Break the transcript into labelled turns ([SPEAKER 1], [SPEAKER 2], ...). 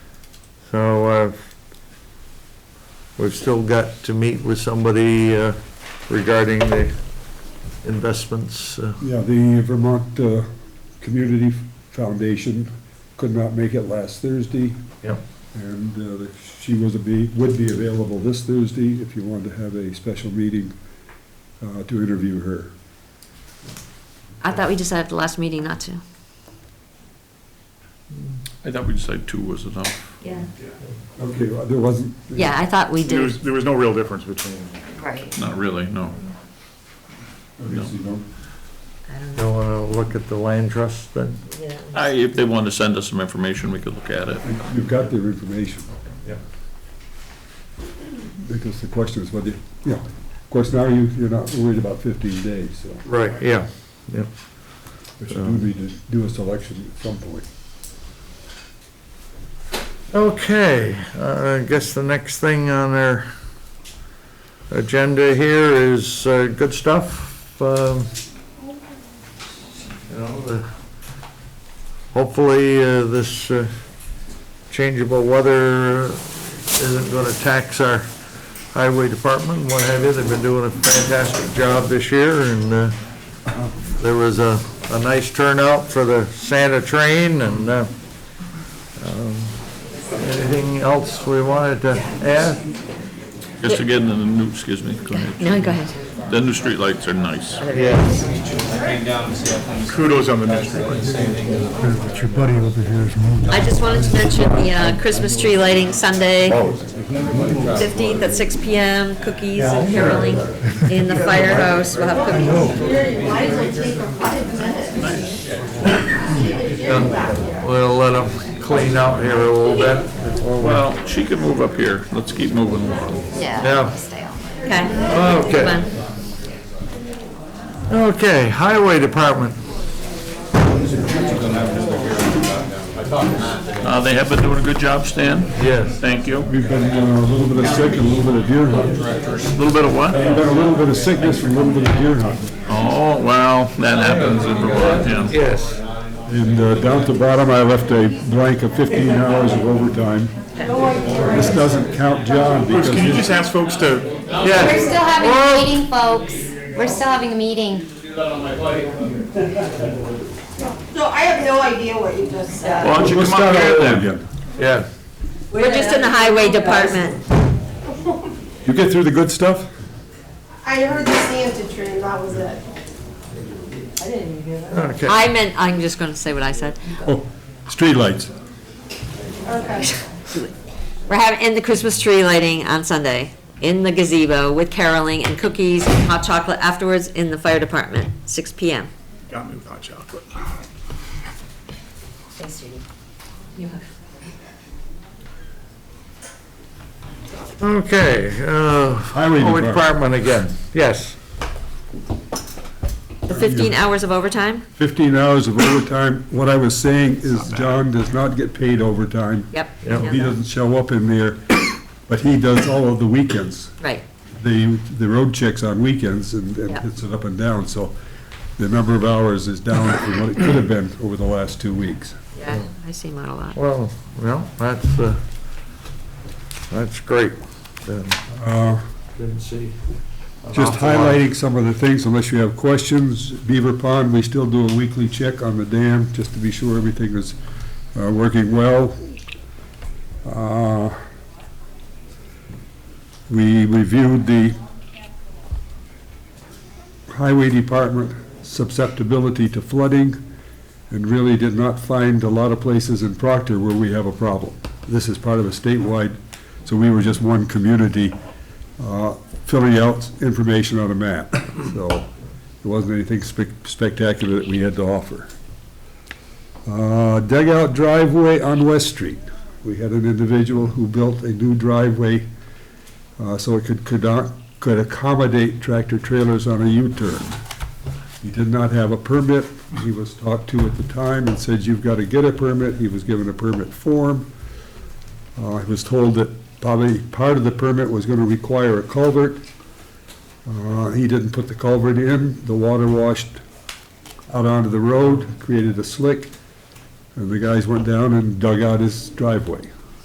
[SPEAKER 1] uh, We've still got to meet with somebody uh, regarding the investments. uh,
[SPEAKER 2] Yeah, the Vermont uh, Community Foundation could not make it last Thursday,
[SPEAKER 1] Yep.
[SPEAKER 2] and uh, she was, a be- would be available this Thursday if you wanted to have a special meeting uh, to interview her.
[SPEAKER 3] I thought we decided at the last meeting not to.
[SPEAKER 4] I thought we decided two was enough.
[SPEAKER 3] Yeah.
[SPEAKER 2] Okay, well, Uh, there wasn't.
[SPEAKER 3] Yeah, I thought we
[SPEAKER 5] There
[SPEAKER 3] did.
[SPEAKER 5] was, there was no real difference between,
[SPEAKER 3] Right.
[SPEAKER 4] Not really, no.
[SPEAKER 2] Obviously, no.
[SPEAKER 3] I don't know.
[SPEAKER 1] You want to look at the land trust then?
[SPEAKER 4] I, if they wanted to send us some information, we could look at it.
[SPEAKER 2] You've got their information.
[SPEAKER 1] Yeah.
[SPEAKER 2] Because the question is whether, you know, of course, now you, you're not worried about fifteen days, so,
[SPEAKER 1] Right, yeah.
[SPEAKER 2] which do need to do a selection at some point.
[SPEAKER 1] Okay, uh, I guess the next thing on our agenda here is uh, good stuff. um, You know, the- hopefully uh, this uh, changeable weather isn't going to tax our highway department, what have you. They've been doing a fantastic job this year, and uh, there was a a nice turnout for the Santa train, and uh, Anything else we wanted to add?
[SPEAKER 4] Just again, the new, excuse me, go ahead.
[SPEAKER 3] No, go ahead.
[SPEAKER 4] the new streetlights are nice.
[SPEAKER 1] Yes.
[SPEAKER 5] kudos on the ministry.
[SPEAKER 2] Your buddy over here is moving.
[SPEAKER 3] I just wanted to mention the uh, Christmas tree lighting Sunday, 15th at 6 PM, cookies and caroling in the firehouse. We'll have cookies.
[SPEAKER 1] We'll let them clean up here a little bit. before we-
[SPEAKER 4] Well, she can move up here. Let's keep moving along.
[SPEAKER 1] Yeah. Oh,
[SPEAKER 3] Okay. Come
[SPEAKER 1] Okay,
[SPEAKER 3] on.
[SPEAKER 1] okay, Highway Department.
[SPEAKER 4] Uh, they have been doing a good job, Stan.
[SPEAKER 1] Yes.
[SPEAKER 4] Thank you.
[SPEAKER 2] We've been uh, a little bit of sick and a little bit of deer hunting.
[SPEAKER 4] A little bit of what?
[SPEAKER 2] We've been a little bit of sickness and a little bit of deer hunting.
[SPEAKER 4] Oh, well, that happens in Vermont, yeah.
[SPEAKER 1] Yes.
[SPEAKER 2] And uh, down at the bottom, I left a blank of fifteen hours of overtime. This doesn't count John because.
[SPEAKER 5] Can you
[SPEAKER 2] his-
[SPEAKER 5] just ask folks to
[SPEAKER 6] We're
[SPEAKER 1] Yes.
[SPEAKER 6] still having
[SPEAKER 1] Well-
[SPEAKER 6] a meeting, folks. We're still having a meeting.
[SPEAKER 7] So I have no idea what you just said.
[SPEAKER 4] Why don't you
[SPEAKER 2] Let's
[SPEAKER 4] come up
[SPEAKER 2] start
[SPEAKER 4] here
[SPEAKER 2] all over
[SPEAKER 4] then?
[SPEAKER 2] again.
[SPEAKER 1] Yeah.
[SPEAKER 3] We're just in the highway department.
[SPEAKER 2] You get through the good stuff?
[SPEAKER 7] I heard the Santa tree, and that was it. I didn't even hear that.
[SPEAKER 1] Okay.
[SPEAKER 3] I meant, I'm just going to say what I said.
[SPEAKER 2] Oh, streetlights.
[SPEAKER 7] Okay.
[SPEAKER 3] We're having, and the Christmas tree lighting on Sunday in the gazebo with caroling and cookies and hot chocolate afterwards in the fire department, 6 PM.
[SPEAKER 5] Got me with hot chocolate.
[SPEAKER 1] Okay, uh,
[SPEAKER 2] Highway
[SPEAKER 1] Highway
[SPEAKER 2] Department.
[SPEAKER 1] Department again, yes.
[SPEAKER 3] The 15 hours of overtime?
[SPEAKER 2] 15 hours of overtime. What I was saying is John does not get paid overtime.
[SPEAKER 3] Yep.
[SPEAKER 1] Yep.
[SPEAKER 2] He doesn't show up in there, but he does all of the weekends.
[SPEAKER 3] Right.
[SPEAKER 2] The, the road checks on weekends and and
[SPEAKER 3] Yeah.
[SPEAKER 2] hits it up and down, so the number of hours is down from what it could have been over the last two weeks.
[SPEAKER 3] Yeah, I see him out a lot.
[SPEAKER 1] Well, well, that's, uh, that's great. Then-
[SPEAKER 2] Uh,
[SPEAKER 1] Didn't see. an
[SPEAKER 2] Just
[SPEAKER 1] awful lot.
[SPEAKER 2] highlighting some of the things, unless you have questions, Beaver Pond, we still do a weekly check on the dam, just to be sure everything is uh, working well. Uh, We reviewed the highway department susceptibility to flooding, and really did not find a lot of places in Proctor where we have a problem. This is part of a statewide, so we were just one community uh, filling out information on a map. So it wasn't anything spec- spectacular that we had to offer. Uh, Dug out driveway on West Street. We had an individual who built a new driveway uh, so it could, could not, could accommodate tractor trailers on a U-turn. He did not have a permit. He was talked to at the time and said, you've got to get a permit. He was given a permit form. Uh, I was told that probably part of the permit was gonna require a culvert. Uh, he didn't put the culvert in, the water washed out onto the road, created a slick, and the guys went down and dug out his driveway.